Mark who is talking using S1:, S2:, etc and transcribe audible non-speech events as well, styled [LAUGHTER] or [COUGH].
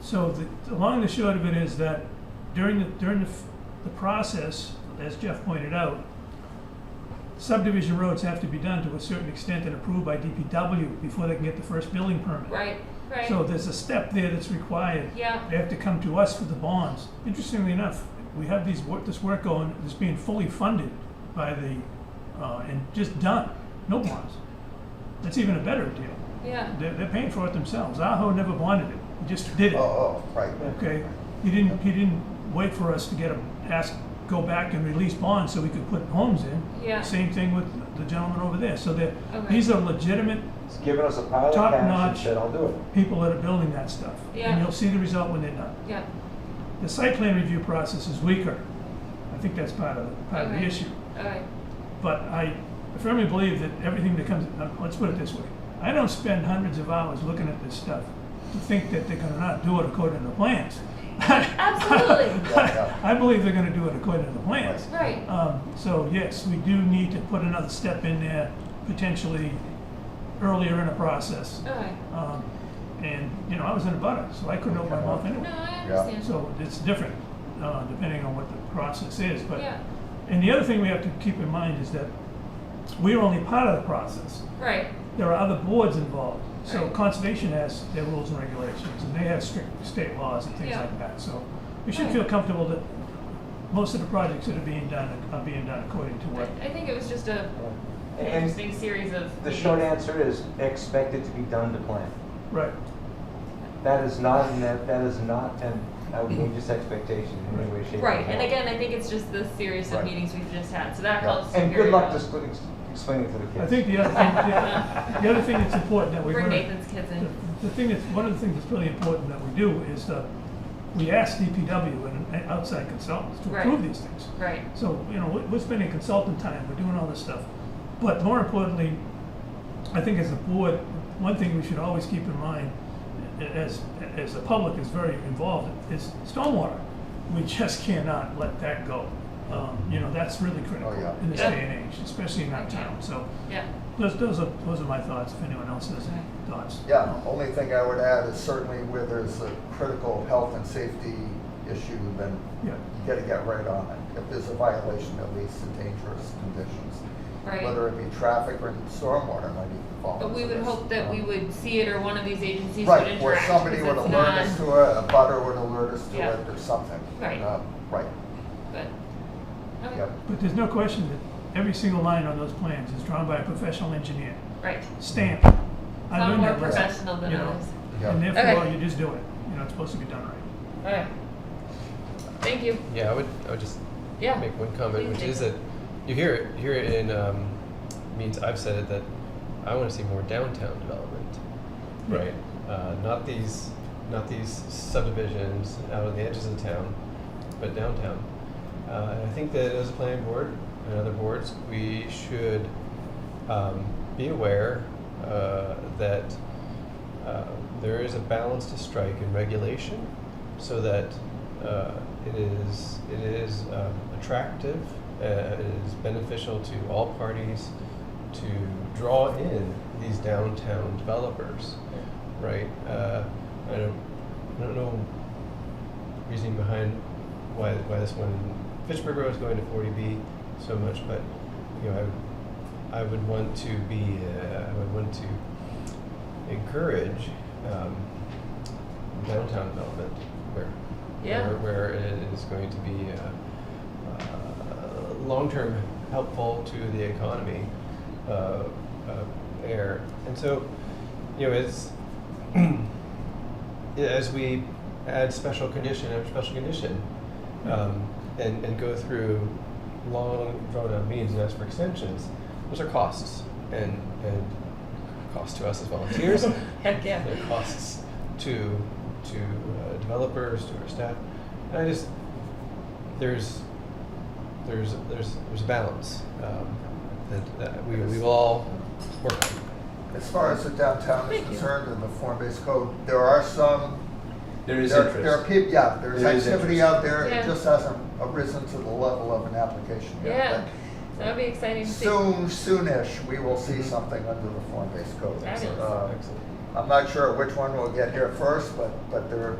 S1: So the, the long and the short of it is that during the, during the, f- the process, as Jeff pointed out, subdivision roads have to be done to a certain extent and approved by DPW before they can get the first building permit.
S2: Right, right.
S1: So there's a step there that's required.
S2: Yeah.
S1: They have to come to us for the bonds. Interestingly enough, we have these, wor- this work going, that's being fully funded by the, uh, and just done, no bonds. That's even a better deal.
S2: Yeah,
S1: They're, they're paying for it themselves. Aho never wanted it. He just did it.
S3: Oh, oh, right.
S1: Okay, he didn't, he didn't wait for us to get a, ask, go back and release bonds so we could put homes in.
S2: Yeah.
S1: Same thing with the gentleman over there, so that,
S2: Okay.
S1: these are legitimate
S3: He's giving us a pile of
S1: Top
S3: cash and
S1: notch.
S3: said, I'll do it.
S1: people that are building that stuff.
S2: Yeah.
S1: And you'll see the result when they're done.
S2: yeah,
S1: The site plan review process is weaker, I think that's part of, the- part of the
S2: Okay.
S1: issue.
S2: all right,
S1: But I firmly believe that everything that comes, uh, let's put it this way, I don't spend hundreds of hours looking at this stuff to think that they're gonna not do it according to the plans.
S2: [LAUGHS] Absolutely.
S3: Yeah,
S1: [LAUGHS] I believe they're gonna do it according to the plans.
S2: right,
S1: Um, so yes, we do need to put another step in there, potentially earlier in the process.
S2: all right.
S1: Um, and, you know, I was in a butter, so I couldn't open my mouth
S2: No,
S1: anyway.
S2: I understand.
S1: So it's different, uh, depending on what the process is, but.
S2: Yeah,
S1: And the other thing we have to keep in mind is that we're only part of the process.
S2: right,
S1: There are other boards involved. So
S2: Right.
S1: conservation has their rules and regulations, and they have strict state laws and things
S2: Yeah.
S1: like that. So we should
S2: Right.
S1: feel comfortable that most of the projects that are being done are being done according to
S2: I
S1: what.
S2: I think it was just a
S3: yeah.
S2: an
S3: And
S2: interesting series of.
S3: the short
S2: meetings.
S3: answer is expected to be done to plan.
S1: Right.
S3: That is not, an- that, that is not an outrageous expectation in any way, shape or form.
S2: Right, and again, I think it's just the series of
S3: Right.
S2: meetings we've just had, so that
S3: Yeah.
S2: helps.
S3: And
S2: very
S3: good luck
S2: well.
S3: just explaining to the kids.
S1: I think the other thing, the, the other thing
S3: [LAUGHS]
S1: that's important that we're
S2: Bring
S1: gonna.
S2: Nathan's kids in.
S1: The- The thing that's, one of the things that's really important that we do is that we ask DPW and and outside consultants to
S2: Right.
S1: approve these things.
S2: Right,
S1: So, you know, we- we're spending consultant time, we're doing all this stuff. But more importantly, I think as a board, one thing we should always keep in mind, a- as, as the public is very involved, is stormwater. We just cannot let that go. Um, you know, that's really critical
S3: yeah.
S1: in this
S2: Yeah.
S1: day and age, especially in our town. So
S2: yeah,
S1: those, those are, those are my thoughts, if anyone else has any
S2: Okay.
S1: thoughts.
S4: Yeah, only thing I would add is certainly where there's a critical health and safety issue, then
S1: Yeah,
S4: you gotta get right on it. If there's a violation, at least in dangerous conditions.
S2: right.
S4: Whether it be traffic or stormwater might even fall
S2: But we
S4: into
S2: would
S4: this.
S2: hope that we would see it or one of these agencies would
S4: Right,
S2: interact.
S4: or somebody would
S2: because it's
S4: alert us
S2: not-
S4: to it, a butter would alert us to
S2: Yeah.
S4: it or something.
S2: Right.
S4: Uh, Right,
S2: But,
S4: yep.
S2: okay,
S1: but there's no question that every single line on those plans is drawn by a professional engineer.
S2: right.
S1: stamp. I
S2: Some
S1: learned
S2: more
S1: that lesson,
S2: professional than
S1: you know,
S2: others.
S4: Yeah.
S1: And
S2: Okay.
S1: therefore, you just do it. You know, it's supposed to be done right.
S2: Alright. Thank you.
S5: Yeah, I would, I would just
S2: Yeah.
S5: make one comment,
S2: Please
S5: which
S2: do.
S5: is that you hear it, you hear it in um, means I've said it that I want to see more downtown development, right? Uh, not these, not these subdivisions out on the edges of town, but downtown. Uh, and I think that as a planning board and other boards, we should um, be aware uh, that uh, there is a balance to strike in regulation so that uh, it is, it is um, attractive, uh, it is beneficial to all parties to draw in these downtown developers, right? Uh, I don't, I don't know reasoning behind why, why this one in Fitchburg Road is going to 40B so much, but, you know, I, I would want to be, uh, I would want to encourage um, downtown development where,
S2: Yeah.
S5: where where it is going to be uh, uh, long-term helpful to the economy uh, uh, there. And so, you know, it's [CLEARS THROAT] yeah, as we add special condition after special condition, um, and and go through long drawn-out meetings and ask for extensions, those are costs and and cost to us as volunteers.
S2: [LAUGHS] Heck yeah.
S5: Their costs to to uh, developers to our staff. And I just there's there's there's there's a balance um, that, that we we will all work on.
S4: As far as the downtown
S2: Thank
S4: is
S2: you.
S4: concerned and the form-based code, there are some
S6: There is
S4: There,
S6: interest.
S4: there are people, yeah, there's
S6: There is
S4: activity
S6: interest.
S4: out there,
S2: Yeah.
S4: it just hasn't arisen to the level of an application
S2: Yeah,
S4: yet.
S2: that'd be exciting
S4: but
S2: to see.
S4: Soon, soonish, we will see
S5: Mhm.
S6: Mm-hmm.
S4: something under the form-based code.
S2: Fabulous.
S4: Uh,
S5: Excellent.
S4: I'm not sure which one will get here first, but, but there,